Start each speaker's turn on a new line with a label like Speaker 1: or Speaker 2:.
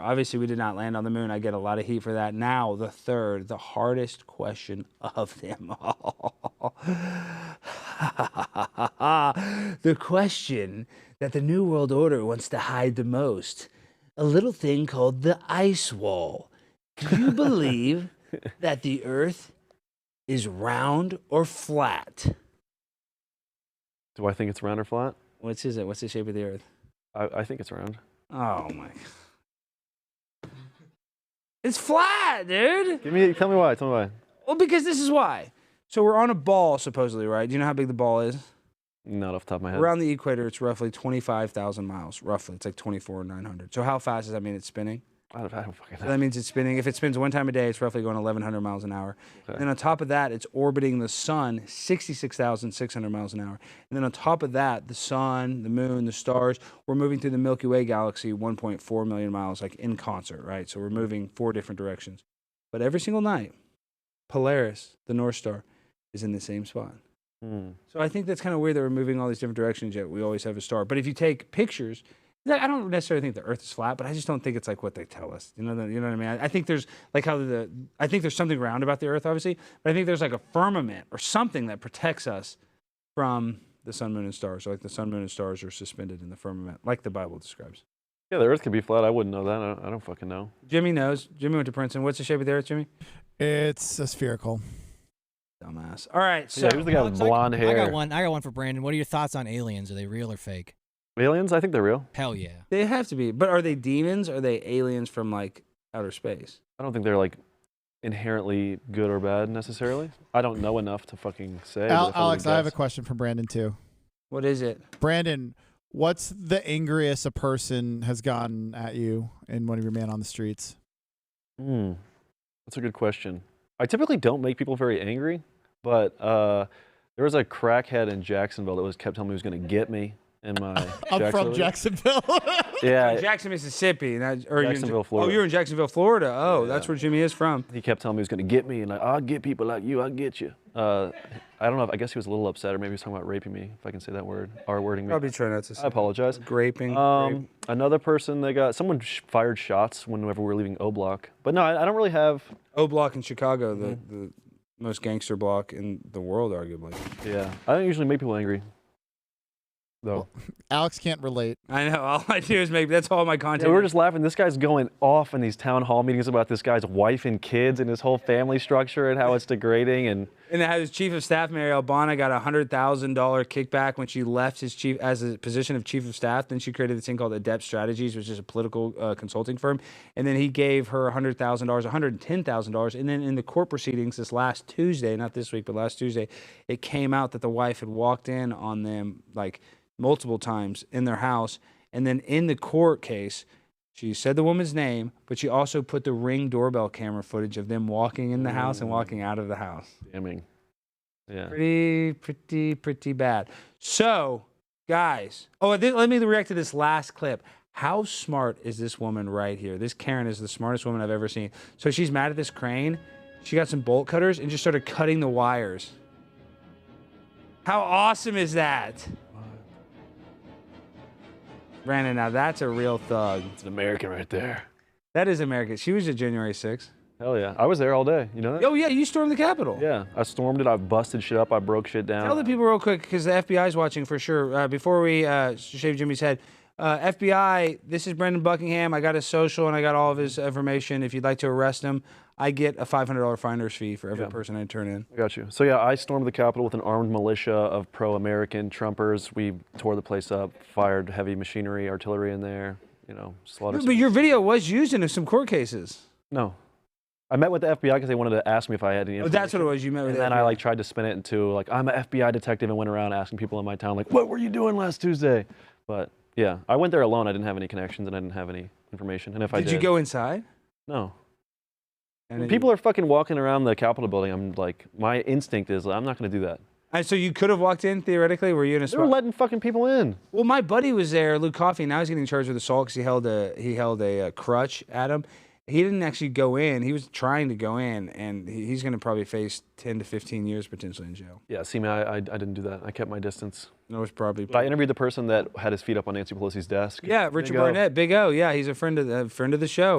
Speaker 1: Obviously, we did not land on the moon. I get a lot of heat for that. Now, the third, the hardest question of them all. the question that the New World Order wants to hide the most a little thing called the ice wall. Do you believe that the Earth is round or flat?
Speaker 2: Do I think it's round or flat?
Speaker 1: What's is it? What's the shape of the Earth?
Speaker 2: I, I think it's round.
Speaker 1: Oh my. It's flat, dude.
Speaker 2: Give me. Tell me why. Tell me why.
Speaker 1: Well, because this is why. So we're on a ball, supposedly, right? Do you know how big the ball is?
Speaker 2: Not off the top of my head.
Speaker 1: Around the equator, it's roughly 25,000 miles, roughly. It's like 24,900. So how fast does that mean it's spinning?
Speaker 2: I don't, I don't fucking
Speaker 1: So
Speaker 2: know.
Speaker 1: that means it's spinning. If it spins one time a day, it's roughly going 1,100 miles an hour.
Speaker 2: Okay.
Speaker 1: And then on top of that, it's orbiting the sun 66,600 miles an hour. And then on top of that, the sun, the moon, the stars, we're moving through the Milky Way galaxy 1.4 million miles, like in concert, right? So we're moving four different directions. But every single night, Polaris, the North Star, is in the same spot.
Speaker 2: Hmm.
Speaker 1: So I think that's kind of weird that we're moving all these different directions, yet we always have a star. But if you take pictures, like, I don't necessarily think the Earth is flat, but I just don't think it's like what they tell us. You know, the, you know what I mean? I, I think there's like how the I think there's something round about the Earth, obviously, but I think there's like a firmament or something that protects us from the sun, moon, and stars. So like the sun, moon, and stars are suspended in the firmament, like the Bible describes.
Speaker 2: Yeah, the Earth could be flat. I wouldn't know that. I don't, I don't fucking know.
Speaker 1: Jimmy knows. Jimmy went to Princeton. What's the shape of the Earth, Jimmy?
Speaker 3: It's a spherical.
Speaker 1: Dumbass. All right, so
Speaker 2: yeah, who's the guy with
Speaker 4: Alex, I-
Speaker 2: blonde hair?
Speaker 4: I got one. I got one for Brandon. What are your thoughts on aliens? Are they real or fake?
Speaker 2: Aliens? I think they're real.
Speaker 4: Hell yeah.
Speaker 1: they have to be. But are they demons? Are they aliens from like outer space?
Speaker 2: I don't think they're like inherently good or bad necessarily. I don't know enough to fucking say. but
Speaker 3: Al-
Speaker 2: if
Speaker 3: Alex,
Speaker 2: were to
Speaker 3: I have a
Speaker 2: guess-
Speaker 3: question for Brandon too.
Speaker 1: What is it?
Speaker 3: Brandon, what's the angriest a person has gotten at you in one of your man on the streets?
Speaker 2: Hmm. That's a good question. I typically don't make people very angry, but uh, there was a crackhead in Jacksonville that was kept telling me he was going to get me in my.
Speaker 3: I'm from
Speaker 2: Jacksonville-
Speaker 3: Jacksonville.
Speaker 2: Yeah,
Speaker 1: Jackson, Mississippi. and that- or you're in Ja-
Speaker 2: Jacksonville, Florida.
Speaker 1: Oh, you're in Jacksonville, Florida. Oh, that's
Speaker 2: Yeah.
Speaker 1: where Jimmy is from.
Speaker 2: he kept telling me he was going to get me, and like, I'll get people like you, I'll get you. Uh, I don't know. If, I guess he was a little upset, or maybe he was talking about raping me, if I can say that word, R wording me.
Speaker 1: Probably try not to
Speaker 2: I
Speaker 1: say.
Speaker 2: apologize.
Speaker 1: Graping.
Speaker 2: Um, another person they got someone sh- fired shots whenever we were leaving O Block, but no, I, I don't really have.
Speaker 1: o Block in Chicago, the,
Speaker 2: mm-hmm.
Speaker 1: the most gangster block in the world, arguably.
Speaker 2: Yeah, I don't usually make people angry. Though
Speaker 3: Alex can't relate.
Speaker 1: I know. All I do is make. That's all my
Speaker 2: Yeah,
Speaker 1: content.
Speaker 2: we were
Speaker 1: is.
Speaker 2: just laughing. This guy's going off in these town hall meetings about this guy's wife and kids and his whole family structure and how it's degrading. And
Speaker 1: and how his chief of staff, Mary Albana, got a hundred thousand dollar kickback when she left his chief as a position of chief of staff. Then she created this thing called Adept Strategies, which is a political uh, consulting firm. And then he gave her a hundred thousand dollars, one hundred and ten thousand dollars. And then in the court proceedings this last Tuesday, not this week, but last Tuesday, it came out that the wife had walked in on them like multiple times in their house. And then in the court case, she said the woman's name, but she also put the ring doorbell camera footage of them walking in the house and walking out of the house
Speaker 2: damning. Yeah.
Speaker 1: pretty, pretty, pretty bad. So, guys, oh, th- let me react to this last clip. How smart is this woman right here? This Karen is the smartest woman I've ever seen. So she's mad at this crane. She got some bolt cutters and just started cutting the wires. How awesome is that? Brandon, now that's a real thug.
Speaker 2: It's an American right there.
Speaker 1: That is America. She was at January 6th.
Speaker 2: Hell yeah. I was there all day. You know that?
Speaker 1: Oh, yeah, you stormed the Capitol.
Speaker 2: Yeah. I stormed it. I busted shit up. I broke shit down.
Speaker 1: Tell the people real quick because the FBI's watching for sure. Uh, before we uh, shave Jimmy's head, uh, FBI, this is Brendan Buckingham. I got his social and I got all of his information. If you'd like to arrest him, I get a $500 finder's fee for every
Speaker 2: Yeah.
Speaker 1: person I turn in.
Speaker 2: I got you. So yeah, I stormed the Capitol with an armed militia of pro-American Trumpers. We tore the place up, fired heavy machinery, artillery in there. You know, slaughtered.
Speaker 1: But
Speaker 2: some-
Speaker 1: your video was used in some court cases.
Speaker 2: no, I met with the FBI because they wanted to ask me if I had any.
Speaker 1: Oh, that's what it
Speaker 2: information.
Speaker 1: was. You met with
Speaker 2: And
Speaker 1: the
Speaker 2: then I
Speaker 1: FBI.
Speaker 2: like tried to spin it into like I'm an FBI detective and went around asking people in my town like, what were you doing last Tuesday? But yeah, I went there alone. I didn't have any connections and I didn't have any information. And if I
Speaker 1: Did
Speaker 2: did,
Speaker 1: you go inside?
Speaker 2: No.
Speaker 1: And then
Speaker 2: people
Speaker 1: you,
Speaker 2: are fucking walking around the Capitol building. I'm like, my instinct is I'm not gonna do that.
Speaker 1: And so you could have walked in theoretically. Were you in a
Speaker 2: They were
Speaker 1: spot?
Speaker 2: letting fucking people in.
Speaker 1: Well, my buddy was there, Luke Coffey. Now he's getting charged with assault because he held a he held a, uh crutch at him, he didn't actually go in. He was trying to go in, and he- he's going to probably face 10 to 15 years potentially in jail.
Speaker 2: Yeah, see, man, I, I, I didn't do that. I kept my distance.
Speaker 1: And it was probably.
Speaker 2: But I interviewed the person that had his feet up on Nancy Pelosi's desk.
Speaker 1: yeah, Richard
Speaker 2: Big O.
Speaker 1: Barnett, Big O. Yeah, he's a friend of the friend of the show.